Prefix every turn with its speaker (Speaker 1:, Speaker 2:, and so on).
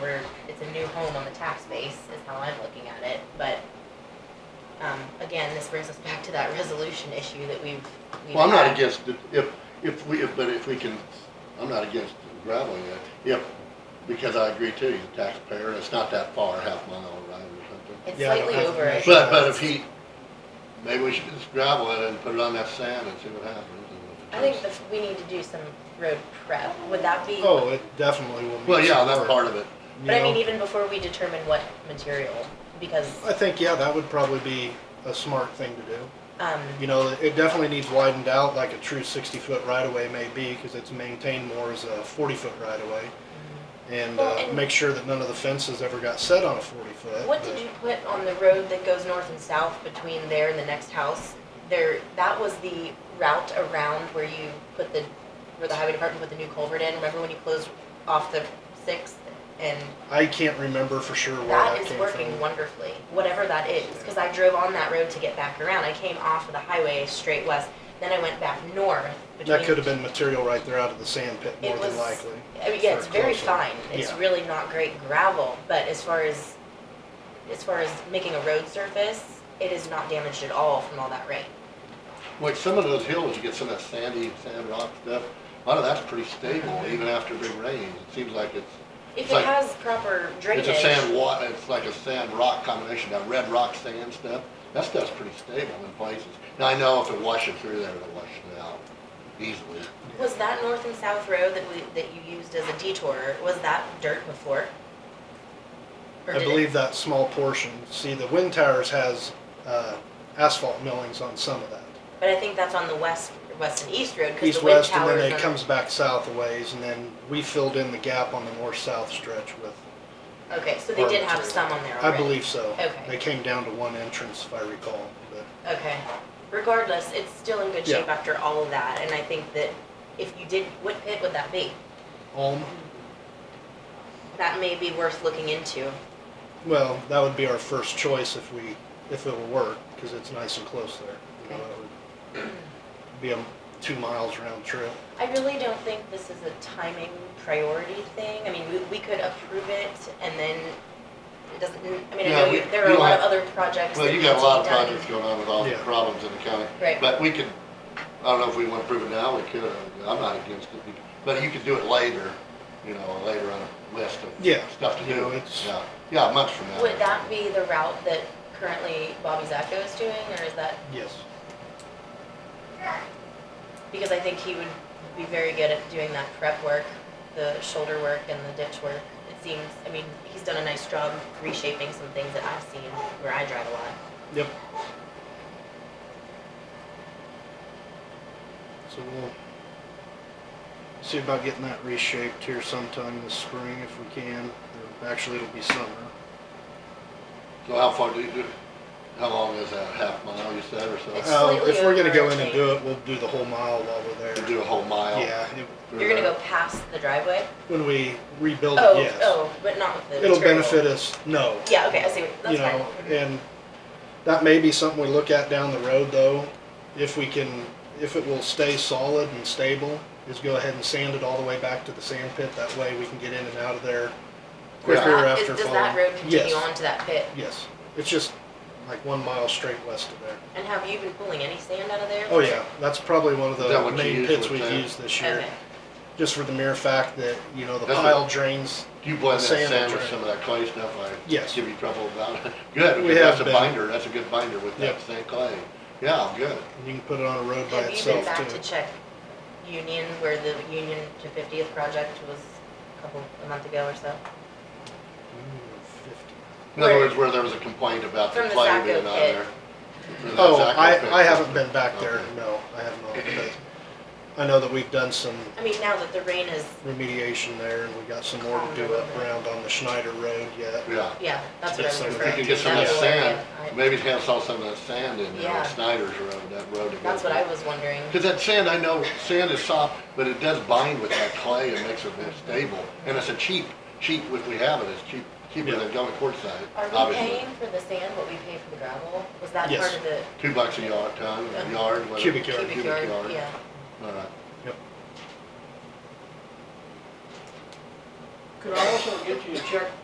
Speaker 1: it's a new home on the tax base, is how I'm looking at it, but, um, again, this brings us back to that resolution issue that we've, we've
Speaker 2: Well, I'm not
Speaker 1: had.
Speaker 2: against, it. if, if we, if- but if we can, I'm not against graveling it, if, because I agree too, he's a taxpayer, it's not that far, half mile or right or something.
Speaker 1: It's
Speaker 3: Yeah, I don't
Speaker 1: slightly
Speaker 3: have to
Speaker 1: over it.
Speaker 3: measure.
Speaker 2: But, but if he, maybe we should just gravel it and put it on that sand and see what happens. and if it
Speaker 1: I think
Speaker 2: takes-
Speaker 1: that we need to do some road prep, would that be?
Speaker 3: Oh, it definitely will. need
Speaker 2: Well, yeah,
Speaker 3: some
Speaker 2: that's
Speaker 3: work,
Speaker 2: part of it.
Speaker 3: you
Speaker 1: But I
Speaker 3: know?
Speaker 1: mean, even before we determine what material, because,
Speaker 3: I think, yeah, that would probably be a smart thing to do.
Speaker 1: um,
Speaker 3: You know, it definitely needs widened out like a true sixty-foot right-of-way may be, because it's maintained more as a forty-foot right-of-way. And,
Speaker 1: Well,
Speaker 3: uh,
Speaker 1: and-
Speaker 3: make sure that none of the fences ever got set on a forty-foot.
Speaker 1: what did you put on the road that goes north and south between there and the next house? There, that was the route around where you put the, where the highway department put the new culvert in, remember when you closed off the sixth? And
Speaker 3: I can't remember for sure where that
Speaker 1: that
Speaker 3: came
Speaker 1: is
Speaker 3: from.
Speaker 1: working wonderfully, whatever that is, cause I drove on that road to get back around, I came off of the highway straight west, then I went back north between.
Speaker 3: That could have been material right there out of the sand pit,
Speaker 1: It
Speaker 3: more than
Speaker 1: was-
Speaker 3: likely.
Speaker 1: I mean, yeah,
Speaker 3: for
Speaker 1: it's very
Speaker 3: closer.
Speaker 1: fine. It's
Speaker 3: Yeah.
Speaker 1: really not great gravel, but as far as as far as making a road surface, it is not damaged at all from all that rain.
Speaker 2: Like some of those hills, you get some of that sandy, sand rock stuff, a lot of that's pretty stable, even after big rains. It seems like it's,
Speaker 1: If
Speaker 2: It's
Speaker 1: it
Speaker 2: like-
Speaker 1: has proper drainage,
Speaker 2: it's a sand wa, it's like a sand rock combination, that red rock sand stuff. That stuff's pretty stable in places. Now, I know if it washes through there, it'll wash it out easily.
Speaker 1: was that north and south road that we that you used as a detour? Was that dirt before? Or
Speaker 3: I
Speaker 1: did it-
Speaker 3: believe that small portion, see, the wind towers has, uh, asphalt millings on some of that.
Speaker 1: but I think that's on the west west and east road because the wind
Speaker 3: east-west, and
Speaker 1: tower
Speaker 3: then it comes back south a ways, and then we filled in the gap on the north-south stretch with,
Speaker 1: Okay, so they did have some on there
Speaker 3: I
Speaker 1: already.
Speaker 3: believe so.
Speaker 1: Okay.
Speaker 3: They came down to one entrance, if I recall, but
Speaker 1: Okay. Regardless, it's still in good shape
Speaker 3: Yeah.
Speaker 1: after all of that, and I think that if you did, what pit would that be?
Speaker 3: Ulm,
Speaker 1: That may be worth looking into.
Speaker 3: well, that would be our first choice if we, if it will work, because it's nice and close there. You know,
Speaker 1: Okay.
Speaker 3: it would Be a two miles round trip.
Speaker 1: I really don't think this is a timing priority thing. I mean, we, we could approve it and then it doesn't, I mean, I
Speaker 2: Yeah,
Speaker 1: know
Speaker 2: we-
Speaker 1: you, there are
Speaker 2: we
Speaker 1: a
Speaker 2: don't
Speaker 1: lot of
Speaker 2: have-
Speaker 1: other projects that
Speaker 2: Well,
Speaker 1: need to
Speaker 2: you
Speaker 1: be
Speaker 2: got a lot of
Speaker 1: done.
Speaker 2: projects going on with all the
Speaker 3: Yeah.
Speaker 2: problems in the county.
Speaker 1: Right.
Speaker 2: But we could, I don't know if we want to prove it now, we could, I'm not against it, but you could do it later, you know, later on a list
Speaker 3: Yeah,
Speaker 2: of stuff to
Speaker 3: you know,
Speaker 2: do.
Speaker 3: it's-
Speaker 2: Yeah, yeah, months from now.
Speaker 1: Would that be the route that currently Bobby Zacco is doing, or is that,
Speaker 3: Yes.
Speaker 1: because I think he would be very good at doing that prep work, the shoulder work and the ditch work. It seems, I mean, he's done a nice job reshaping some things that I've seen where I drive a lot.
Speaker 3: Yep. So we'll see about getting that reshaped here sometime this spring if we can. or Actually, it'll be summer.
Speaker 2: So how far do you do, how long is that, half mile you said or so?
Speaker 1: It's-
Speaker 3: Uh,
Speaker 1: slightly
Speaker 3: If we're gonna go in
Speaker 1: overarching.
Speaker 3: and do it, we'll do the whole mile while we're
Speaker 2: To
Speaker 3: there.
Speaker 2: do a whole mile?
Speaker 3: Yeah, it-
Speaker 2: through
Speaker 1: You're gonna
Speaker 2: there?
Speaker 1: go past the driveway?
Speaker 3: when we rebuild it,
Speaker 1: Oh,
Speaker 3: yes.
Speaker 1: oh, but not with the
Speaker 3: It'll
Speaker 1: material.
Speaker 3: benefit us, no.
Speaker 1: Yeah, okay, I see, what-
Speaker 3: you
Speaker 1: that's fine.
Speaker 3: know, and that may be something we look at down the road though, if we can, if it will stay solid and stable, is go ahead and sand it all the way back to the sand pit, that way we can get in and out of there quicker
Speaker 1: Does that- Uh, is-
Speaker 3: after falling.
Speaker 1: Does that road continue
Speaker 3: Yes,
Speaker 1: on to that pit?
Speaker 3: yes, it's just like one mile straight west of there.
Speaker 1: And have you been pulling any sand out of there?
Speaker 3: Oh yeah, that's probably one of
Speaker 2: Is that
Speaker 3: the
Speaker 2: what you
Speaker 3: main
Speaker 2: use
Speaker 3: pits
Speaker 2: with
Speaker 3: we've
Speaker 2: that?
Speaker 3: used this year,
Speaker 1: Okay,
Speaker 3: just for the mere fact that, you know, the
Speaker 2: That's what-
Speaker 3: pile drains,
Speaker 2: Do you blend that
Speaker 3: Sand
Speaker 2: sand with
Speaker 3: trail.
Speaker 2: some of that clay stuff I
Speaker 3: Yes.
Speaker 2: give you trouble about? Good,
Speaker 3: We
Speaker 2: because that's
Speaker 3: have
Speaker 2: a
Speaker 3: been.
Speaker 2: binder, that's a good binder with that
Speaker 3: Yep.
Speaker 2: sand clay. Yeah, good.
Speaker 3: and you can put it on a road by
Speaker 1: have you been
Speaker 3: itself too.
Speaker 1: back to check Union, where the Union to Fiftieth project was a couple, a month ago or so?
Speaker 3: Ooh, 50.
Speaker 2: In other
Speaker 1: Where-
Speaker 2: words, where there was a complaint about the
Speaker 1: From the
Speaker 2: clay
Speaker 1: Zacco
Speaker 2: being on
Speaker 1: pit.
Speaker 2: there. From that
Speaker 3: Oh,
Speaker 2: Zacco
Speaker 3: I,
Speaker 2: pit.
Speaker 3: I haven't been back there,
Speaker 2: Okay.
Speaker 3: no, I have not, but I know that we've done some
Speaker 1: I mean, now that the rain is,
Speaker 3: remediation there, and we got some more to do up around on the Schneider Road yet.
Speaker 2: Yeah,
Speaker 1: yeah, that's what I was
Speaker 3: It's something
Speaker 2: if
Speaker 1: referring
Speaker 2: you
Speaker 1: to.
Speaker 2: could get some of
Speaker 1: That's
Speaker 2: that
Speaker 1: the area
Speaker 2: sand,
Speaker 1: I-
Speaker 2: maybe Cal saw some of that sand in there on
Speaker 1: Yeah.
Speaker 2: Snyder's Road, that road to go.
Speaker 1: That's what I was wondering.
Speaker 2: Cause that sand, I know, sand is soft, but it does bind with that clay and makes it more stable. And it's a cheap, cheap, if we have it, it's cheap, cheaper
Speaker 3: Yeah.
Speaker 2: than going quartzite,
Speaker 1: Are we
Speaker 2: obviously.
Speaker 1: paying for the sand, what we pay for the gravel? Was that
Speaker 3: Yes.
Speaker 1: part of the
Speaker 2: Two bucks a yard, ton,
Speaker 1: Yeah.
Speaker 2: a yard, whatever.
Speaker 3: Cubic yard.
Speaker 1: cubic yard? Yeah.
Speaker 2: All right.
Speaker 4: Could I also get you a check